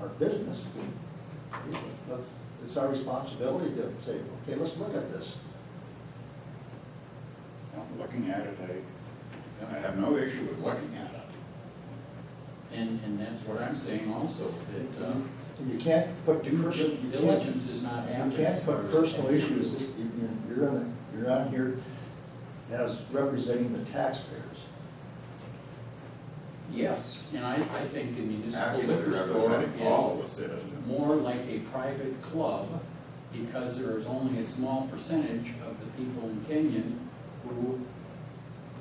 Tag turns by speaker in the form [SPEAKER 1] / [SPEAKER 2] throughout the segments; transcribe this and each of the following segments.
[SPEAKER 1] our business. But It's our responsibility to say, okay, let's look at this.
[SPEAKER 2] I'm looking at it, I, I have no issue with looking at it. And, and that's what I'm saying also, that, um,
[SPEAKER 1] And you can't put
[SPEAKER 2] due
[SPEAKER 1] personal,
[SPEAKER 2] dil-
[SPEAKER 1] you can't,
[SPEAKER 2] diligence is not
[SPEAKER 1] you
[SPEAKER 2] happening.
[SPEAKER 1] can't put personal issues, this- you- you're, you're on the, you're on here as representing the taxpayers.
[SPEAKER 2] Yes, and I, I think the municipal
[SPEAKER 3] Actually
[SPEAKER 2] liquor store
[SPEAKER 3] representing all
[SPEAKER 2] is
[SPEAKER 3] the citizens.
[SPEAKER 2] more like a private club because there is only a small percentage of the people in Kenyon who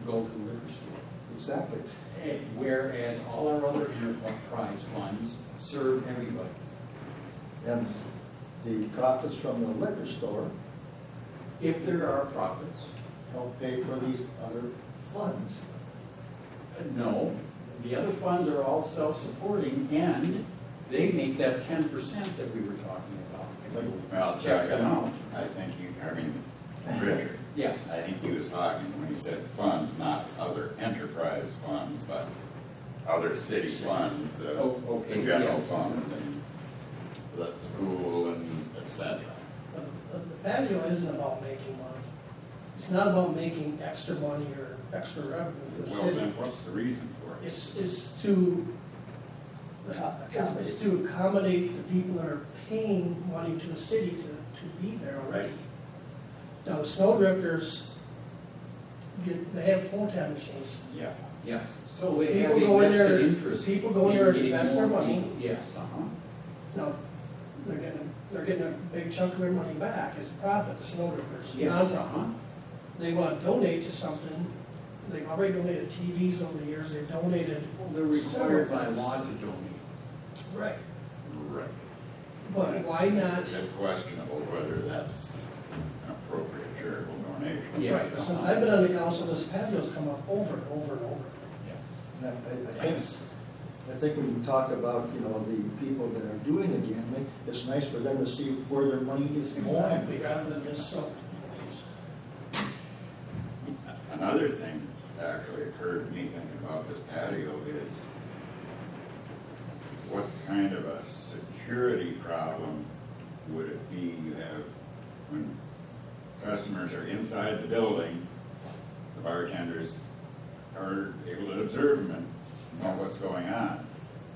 [SPEAKER 2] go to the liquor store.
[SPEAKER 1] Exactly.
[SPEAKER 2] Eh, Whereas all our other enterprise funds serve everybody.
[SPEAKER 1] And the profits from the liquor store
[SPEAKER 2] If there are profits,
[SPEAKER 1] help pay for these other funds.
[SPEAKER 2] uh, no. The other funds are all self-supporting and they make that ten percent that we were talking about.
[SPEAKER 3] Well, Chuck,
[SPEAKER 2] Check them out.
[SPEAKER 3] I think you, I mean, Richard,
[SPEAKER 2] Yes,
[SPEAKER 3] I think he was talking when he said funds, not other enterprise funds, but other city funds, the,
[SPEAKER 2] Oh, okay,
[SPEAKER 3] the general
[SPEAKER 2] yes.
[SPEAKER 3] fund and the school and et cetera.
[SPEAKER 4] But but the patio isn't about making money. It's not about making extra money or extra revenue for the
[SPEAKER 3] Well,
[SPEAKER 4] city.
[SPEAKER 3] then what's the reason for it?
[SPEAKER 4] It's, it's to, it's to accommodate the people that are paying money to the city to, to be there already. Now, the snowdrifters get, they have pull tab machines.
[SPEAKER 3] Yeah.
[SPEAKER 2] yes. So they have
[SPEAKER 4] People go
[SPEAKER 2] a
[SPEAKER 4] in there-
[SPEAKER 2] vested interest.
[SPEAKER 4] people go in there and
[SPEAKER 2] in getting
[SPEAKER 4] invest their
[SPEAKER 2] more
[SPEAKER 4] money.
[SPEAKER 2] people. Yes, uh-huh.
[SPEAKER 4] Now, they're getting, they're getting a big chunk of their money back as a profit, the snowdrifters,
[SPEAKER 2] Yes,
[SPEAKER 4] nonprofit.
[SPEAKER 2] uh-huh.
[SPEAKER 4] they want to donate to something, they've already donated TVs over the years, they've donated.
[SPEAKER 2] They're required by law to donate.
[SPEAKER 4] Right.
[SPEAKER 3] Right.
[SPEAKER 4] But
[SPEAKER 3] That's-
[SPEAKER 4] why not,
[SPEAKER 3] It's questionable whether that's an appropriate charitable donation.
[SPEAKER 2] Yeah.
[SPEAKER 4] right, since I've been on the council, this patio's come up over and over and over.
[SPEAKER 1] And I- I, I think, it's- I think when you talk about, you know, the people that are doing the gambling, it's nice for them to see where their money is going.
[SPEAKER 4] Exactly, rather than just so.
[SPEAKER 3] Another thing that's actually occurred to me thinking about this patio is what kind of a security problem would it be you have when customers are inside the building, the bartenders are able to observe them and know what's going on.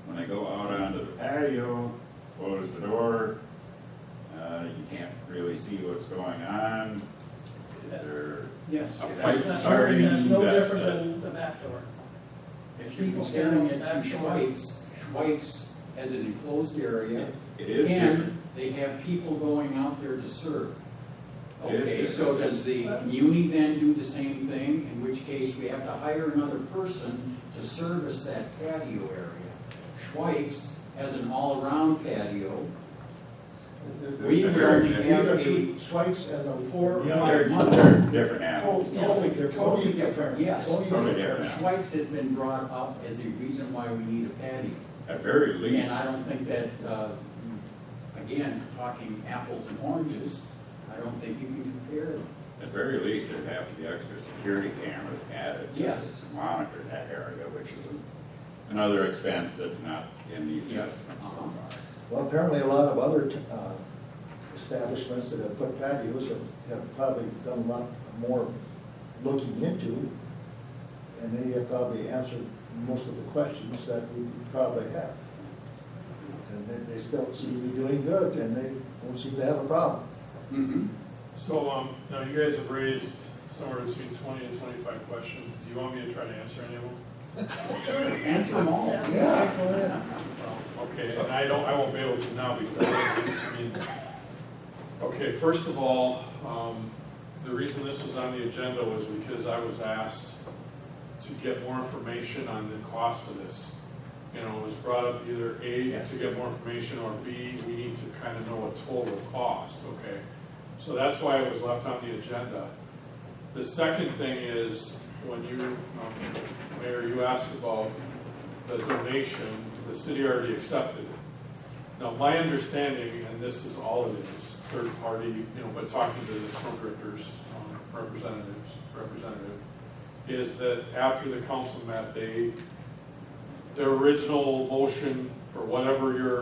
[SPEAKER 3] When they go out onto the patio, close the door, uh, you can't really see what's going on. Is there
[SPEAKER 2] Yes.
[SPEAKER 3] A
[SPEAKER 4] That's
[SPEAKER 3] fight
[SPEAKER 4] not-
[SPEAKER 3] starting
[SPEAKER 4] That's no
[SPEAKER 3] that-
[SPEAKER 4] different
[SPEAKER 3] that-
[SPEAKER 4] than the back door.
[SPEAKER 2] If you're comparing it to Schweitz, Schweitz has an enclosed area,
[SPEAKER 3] It is different.
[SPEAKER 2] and they have people going out there to serve.
[SPEAKER 3] It is
[SPEAKER 2] Okay, so
[SPEAKER 3] different.
[SPEAKER 2] does the muni then do the same thing, in which case we have to hire another person to service that patio area? Schweitz has an all-around patio,
[SPEAKER 1] They're- they're-
[SPEAKER 2] We already
[SPEAKER 1] these
[SPEAKER 2] have
[SPEAKER 1] are
[SPEAKER 2] a-
[SPEAKER 1] two Strikes and a four.
[SPEAKER 3] Yeah,
[SPEAKER 1] fire-
[SPEAKER 3] they're, they're different
[SPEAKER 1] Totally
[SPEAKER 3] animals.
[SPEAKER 1] totally different.
[SPEAKER 2] Totally different, yes.
[SPEAKER 1] Totally
[SPEAKER 3] Totally different.
[SPEAKER 2] Schweitz has been brought up as a reason why we need a patio.
[SPEAKER 3] At very least,
[SPEAKER 2] And I don't think that, uh, again, talking apples and oranges, I don't think you can compare them.
[SPEAKER 3] at very least, there'd have to be extra security cameras added. to
[SPEAKER 2] Yes.
[SPEAKER 3] Monitor that area, which is an- another expense that's not in these
[SPEAKER 2] Yeah.
[SPEAKER 3] estimates so far.
[SPEAKER 1] Well, apparently a lot of other uh, establishments that have put patios have- have probably done a lot more looking into, and they have probably answered most of the questions that we probably have. And they, they still seem to be doing good, and they don't seem to have a problem.
[SPEAKER 2] Mhm.
[SPEAKER 5] So, um, now you guys have raised somewhere between twenty and twenty-five questions. Do you want me to try to answer any of them?
[SPEAKER 2] Answer them all.
[SPEAKER 5] Okay, and I don't, I won't be able to now because I, I mean, okay, first of all, um, the reason this was on the agenda was because I was asked to get more information on the cost of this. You know, it was brought up either A,
[SPEAKER 2] Yes.
[SPEAKER 5] to get more information, or B, we need to kind of know what total cost, okay? So that's why it was left on the agenda. The second thing is, when you, um, Mayor, you asked about the donation, the city already accepted it. Now, my understanding, and this is all it is, third party, you know, but talking to the snowdrifters, um, representatives, representative, is that after the council met, they, their original motion for whatever your